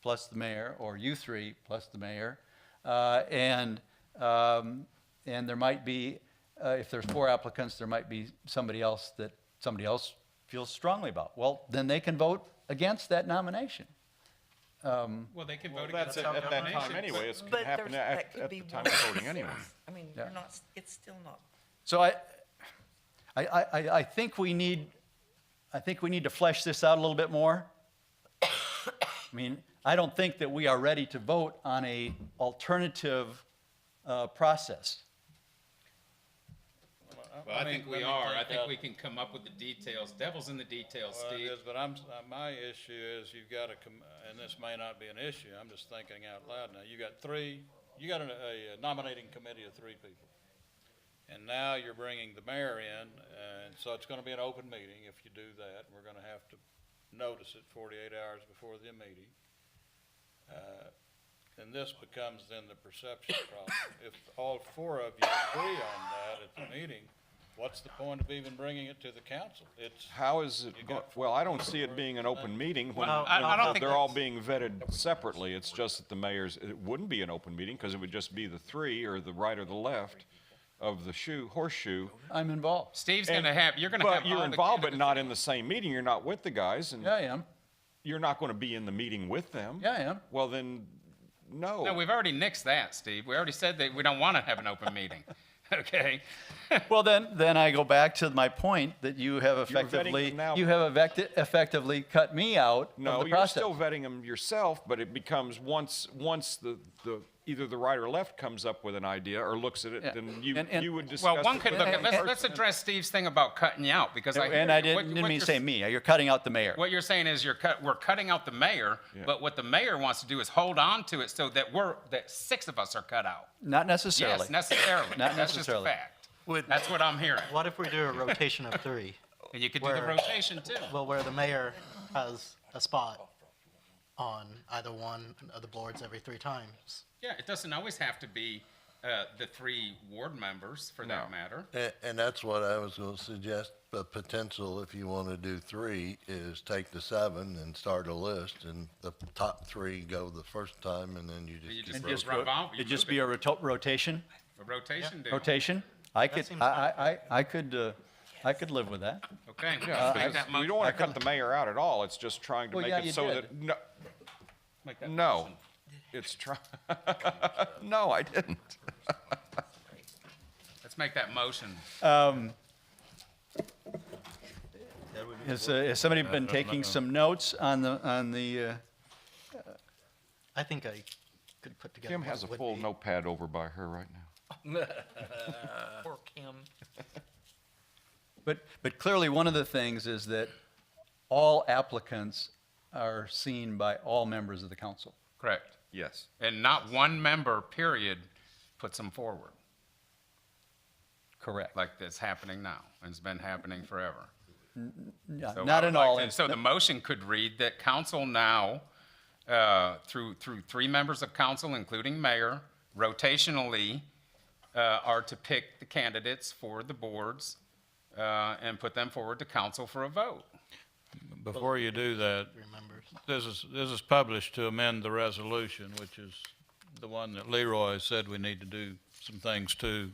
plus the mayor, or you three plus the mayor. Uh, And, um, and there might be, uh, if there's four applicants, there might be somebody else that somebody else feels strongly about. Well, then they can vote against that nomination. Well, they can Well, vote against that's at the at that time nomination. anyway, it But can happen there's- at, that could at be the time one of voting anyway. source. I mean, Yeah. you're not, it's still not, So I, I, I, I- I think we need, I think we need to flesh this out a little bit more. I mean, I don't think that we are ready to vote on a alternative uh, process. Well, I think we are. I think we can come up with the details. Devil's in the details, Well, it Steve. is, but I'm, s- uh, my issue is you've got to, and this may not be an issue, I'm just thinking out loud now. You got three, you got a- a nominating committee of three people. And now you're bringing the mayor in, and so it's going to be an open meeting if you do that. We're going to have to notice it 48 hours before the meeting. Uh, And this becomes then the perception problem. If all four of you agree on that at the meeting, what's the point of even bringing it to the council? It's, How is it, You go- got- well, I don't see it being an open meeting when Well, I- I don't when think they're all that's- being vetted separately. It's just that the mayor's, it wouldn't be an open meeting because it would just be the three or the right or the left of the shoe, horseshoe. I'm involved. Steve's And- gonna have, you're gonna have all But the. you're involved, but candidates. not in the same meeting. You're not with the guys and Yeah, I am. you're not going to be in the meeting with them. Yeah, I am. Well, then, no. No, we've already nixed that, Steve. We already said that we don't wanna have an open meeting, okay? Well, then, then I go back to my point that you have vetting them effectively, now. you have effecti- effectively cut me out of No, the you're process. still vetting them yourself, but it becomes once, once the, the, either the right or left comes up with an idea or looks at it, Yeah. then you, And- and- you would discuss. Well, one it could with look that at, let's, person. let's address Steve's thing about cutting you out because I. hear And I you. didn't What- didn't what mean you're say s- me, you're cutting out the mayor. What you're saying is you're cut, we're cutting out the mayor, but what the mayor wants to do is hold on to it so that we're, that six of us are cut out. Not necessarily. Yes, necessarily. Not That's just a necessarily. fact. Would- That's what I'm hearing. What if we do a rotation of three? And you could do the Where- rotation too. Well, where the mayor has a spot on either one of the boards every three times. Yeah, it doesn't always have to be uh, the three ward members for that matter. And, and that's what I was going to suggest, the potential, if you want to do three, is take the seven and start a list, and the top three go the first time, and then you just. You keep just And rolling. just ro- Revolve, you It'd just move it. be a roto- rotation, A rotation deal. rotation. I could, seems I, I, I- I could, uh, I could live with that. Okay. Yeah, Make because that mo- We don't want to cut the mayor out at all. It's just trying to Well, make yeah, it you so did. that, no, make that no. motion. It's try, no, I didn't. Let's make that motion. Has, uh, has somebody been taking some notes on the, on the, uh, I think I could put together. Kim what has a it would full be. notepad over by her right now. poor Kim. but, but clearly one of the things is that all applicants are seen by all members of the council. Correct. Yes. And not one member, period, puts them forward Correct. like that's happening now and it's been happening forever. Yeah, So I Not would in like all, to- inst- So the motion could read that council now, uh, through, through three members of council, including mayor, rotationally, uh, are to pick the candidates for the boards, uh, and put them forward to council for a vote. Before you do that, Remembers. this is, this is published to amend the resolution, which is the one that Leroy said we need to do some things to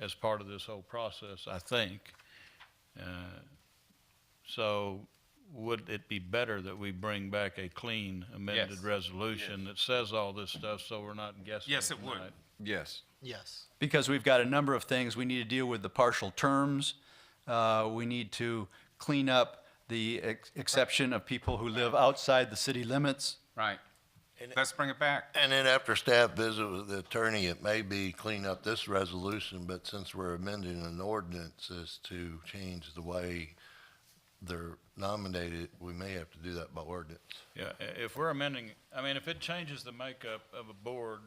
as part of this whole process, I think. Uh, So would it be better that we bring back a clean amended Yes. resolution that says all this stuff, so we're not guessing? Yes, it would. tonight? Yes. Yes. because we've got a number of things. We need to deal with the partial terms. Uh, we need to clean up the ex- exception of people who live outside the city limits. Right. Let's bring it back. And then after staff visit with the attorney, it may be clean up this resolution, but since we're amending an ordinance as to change the way they're nominated, we may have to do that by ordinance. Yeah, i- if we're amending, I mean, if it changes the makeup of a board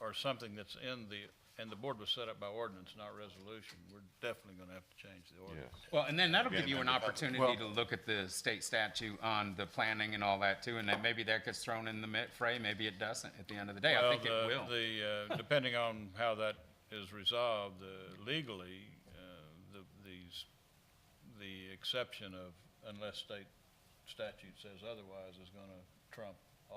or something that's in the, and the board was set up by ordinance, not resolution, we're definitely gonna have to change the ordinance. Well, and then that'll give you an opportunity to look at the state statute on the planning and all that too, and then maybe that gets thrown in the mi- fray, maybe it doesn't at the end of the day. I Well, think it the- will. The, uh, depending on how that is resolved uh, legally, uh, the, these, the exception of unless state statute says otherwise is gonna trump